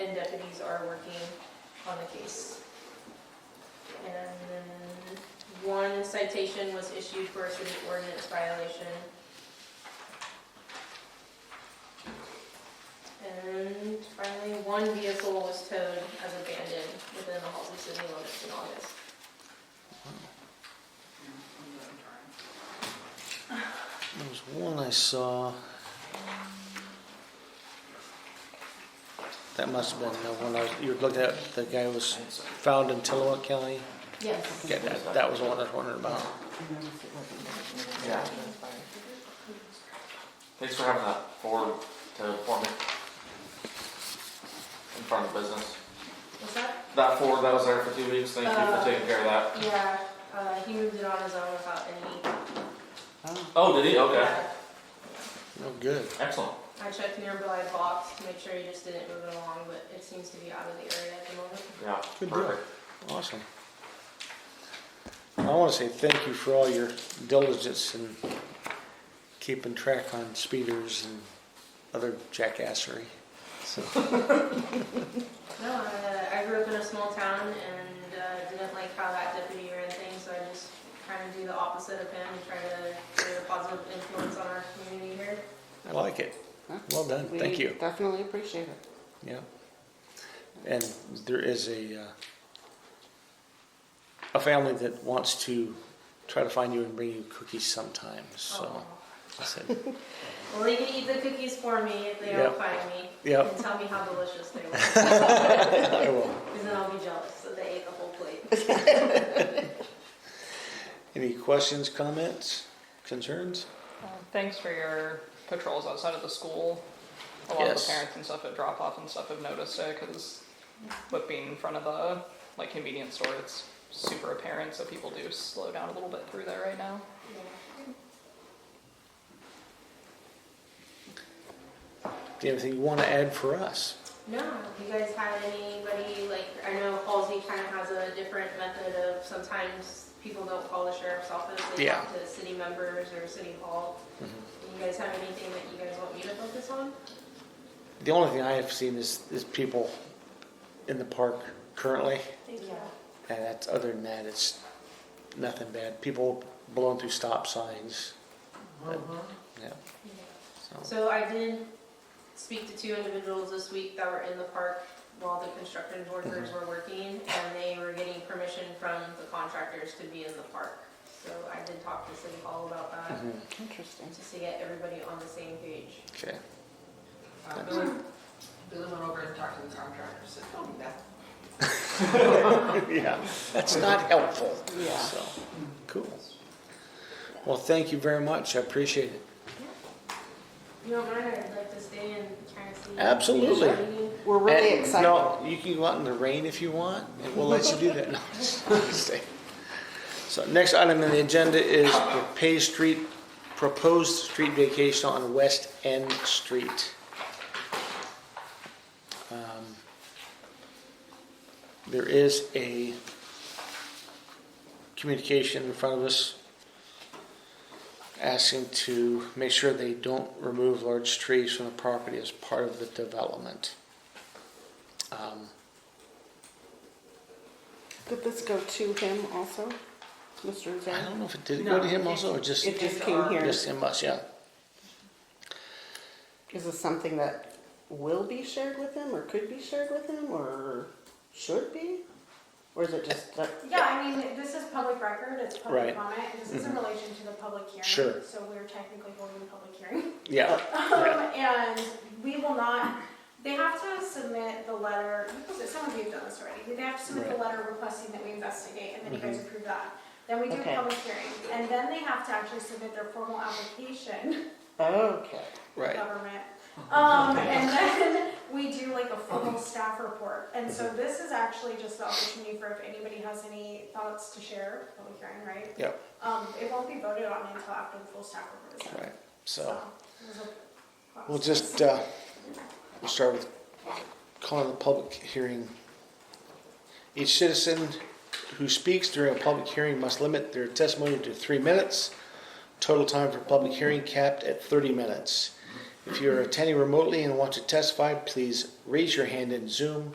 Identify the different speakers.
Speaker 1: are working on the case. And then one citation was issued for a city ordinance violation. And finally, one vehicle was towed as abandoned within the Halsey city limits in August.
Speaker 2: There was one I saw. That must have been the one I was, you looked at, the guy was found in Tillamook County.
Speaker 1: Yes.
Speaker 2: Yeah, that, that was the one I was wondering about.
Speaker 3: Yeah. Thanks for having that forward to for me. In front of business.
Speaker 1: What's that?
Speaker 3: That forward that was there for two weeks, thank you
Speaker 2: Uh,
Speaker 3: for taking care of that.
Speaker 1: Yeah, uh, he moved it on his own without any. uh,
Speaker 3: Oh, did he? Okay,
Speaker 2: Oh, good.
Speaker 3: excellent.
Speaker 1: I checked nearby box to make sure he just didn't move it along, but it seems to be out of the area at the moment.
Speaker 3: Yeah,
Speaker 2: Good deal.
Speaker 3: perfect.
Speaker 2: Awesome. I want to say thank you for all your diligence in keeping track on speeders and other jackassery. So,
Speaker 1: No, uh, I grew up in a small town and uh, didn't like how that deputy ran things, so I just kind of do the opposite of him and try to create a positive influence on our community here.
Speaker 2: I like it. Well done.
Speaker 4: We
Speaker 2: Thank you.
Speaker 4: Definitely appreciate it.
Speaker 2: Yeah. And there is a, uh, a family that wants to try to find you and bring you cookies sometimes, so.
Speaker 1: Oh.
Speaker 2: I said,
Speaker 1: Well, they can eat the cookies for me if they
Speaker 2: Yep.
Speaker 1: don't find me.
Speaker 2: Yep,
Speaker 1: And tell me how delicious they were, because
Speaker 2: I will.
Speaker 1: then I'll be jealous that they ate the whole plate.
Speaker 2: Any questions, comments, concerns?
Speaker 5: Uh, Thanks for your patrols outside of the school. A lot of
Speaker 2: Yes.
Speaker 5: the parents and stuff at drop off and stuff have noticed it because with being in front of the like convenience store, it's super apparent. So people do slow down a little bit through there right now.
Speaker 2: Do you have anything you want to add for us?
Speaker 1: No, have you guys had anybody, like, I know Halsey kind of has a different method of, sometimes people don't call the sheriff's office, they
Speaker 2: Yeah.
Speaker 1: talk to city members or city hall. Do
Speaker 2: Mm-hmm.
Speaker 1: you guys have anything that you guys want me to focus on?
Speaker 2: The only thing I have seen is, is people in the park currently,
Speaker 1: Yeah.
Speaker 2: and that's, other than that, it's nothing bad. People blowing through stop signs. but- Yeah, so,
Speaker 1: So I did speak to two individuals this week that were in the park while the construction workers were working, and they were getting permission from the contractors to be in the park. So I did talk to city hall about that,
Speaker 2: mhm,
Speaker 4: Interesting.
Speaker 1: just to get everybody on the same page.
Speaker 2: okay.
Speaker 6: Uh, Billy, Billy went over and talked to the contractor, said, don't do that.
Speaker 2: Yeah, that's not helpful.
Speaker 4: Yeah.
Speaker 2: So, cool. Well, thank you very much. I appreciate it.
Speaker 1: You don't mind, I'd like to stay and kind of see.
Speaker 2: Absolutely.
Speaker 4: We're really
Speaker 2: And,
Speaker 4: excited.
Speaker 2: No, you can go out in the rain if you want, and we'll let you do that. No, stay. So next item on the agenda is proposed street, proposed street vacation on West End Street. Um, There is a communication in front of us asking to make sure they don't remove large trees from the property as part of the development. Um,
Speaker 4: Did this go to him also, Mr.
Speaker 2: I
Speaker 4: Zhang?
Speaker 2: don't know if it did go to him also, or just,
Speaker 4: It just came here.
Speaker 2: just him us, yeah.
Speaker 4: Is this something that will be shared with him, or could be shared with him, or should be? Or is it just like,
Speaker 7: Yeah, I mean, this is public record, it's
Speaker 2: Right. Mm-hmm.
Speaker 7: public comment, this is in relation to the public hearing.
Speaker 2: Sure.
Speaker 7: So we're technically holding a public hearing.
Speaker 2: Yeah,
Speaker 4: Uh,
Speaker 2: Right.
Speaker 7: Um, And we will not, they have to submit the letter, because some of you have done this already, they have to submit the letter requesting that we investigate, and then you guys
Speaker 2: Mm-hmm.
Speaker 7: approve that. Then we do
Speaker 4: Okay.
Speaker 7: a public hearing, and then they have to actually submit their formal application,
Speaker 4: okay,
Speaker 2: right.
Speaker 7: government. Um, And then we do like a formal staff report. And
Speaker 2: Mm-hmm.
Speaker 7: so this is actually just the opportunity for if anybody has any thoughts to share, public hearing, right?
Speaker 2: Yeah,
Speaker 7: Um, it won't be voted on until after the full staff report is done.
Speaker 2: right. So
Speaker 7: there's a process.
Speaker 2: we'll just, uh, we'll start with calling the public hearing. Each citizen who speaks during a public hearing must limit their testimony to three minutes. Total time for public hearing capped at 30 minutes. If you're attending remotely and want to testify, please raise your hand in Zoom.